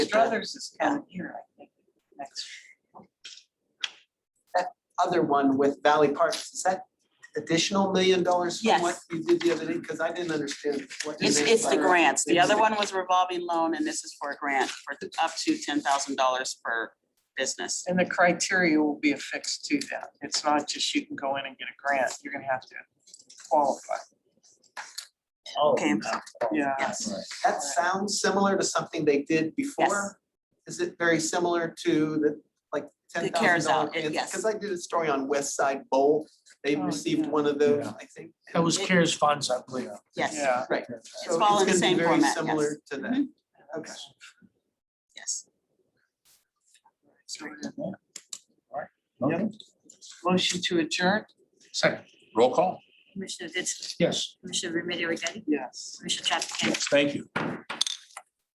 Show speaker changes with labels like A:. A: Struthers is down here, I think, next. That other one with Valley Parks, is that additional million dollars from what
B: Yes.
A: you did the other day? Because I didn't understand what. you
B: It's,
A: meant
B: it's the
A: by-
B: grants. The other one was revolving loan and this is for a grant for up to ten thousand dollars per business.
C: And the criteria will be affixed to that. It's not just you can go in and get a grant. You're gonna have to qualify.
B: Okay,
C: Yeah.
B: yes.
A: Oh, That sounds similar to something they did before. Is it very similar to the, like, ten
B: The
A: thousand dollars?
B: CARES Act, it- yes.
A: Because I did a story on West Side Bowl. They
C: Oh,
A: received
C: yeah.
A: one of those,
D: Yeah.
A: I think.
D: That was CARES funds, I believe.
B: Yes,
C: Yeah.
A: So
B: all
A: gonna
B: in the
A: be
B: same
A: very
B: format, yes. Mm-hmm.
A: Similar to that. Okay.
B: yes.
D: Okay.
C: Motion to adjourn?
D: Second, roll call.
E: Commissioner Ditzler,
D: Yes.
E: Commissioner Remedy Agati,
C: Yes.
E: Commissioner Traficant,
D: Yes, thank you.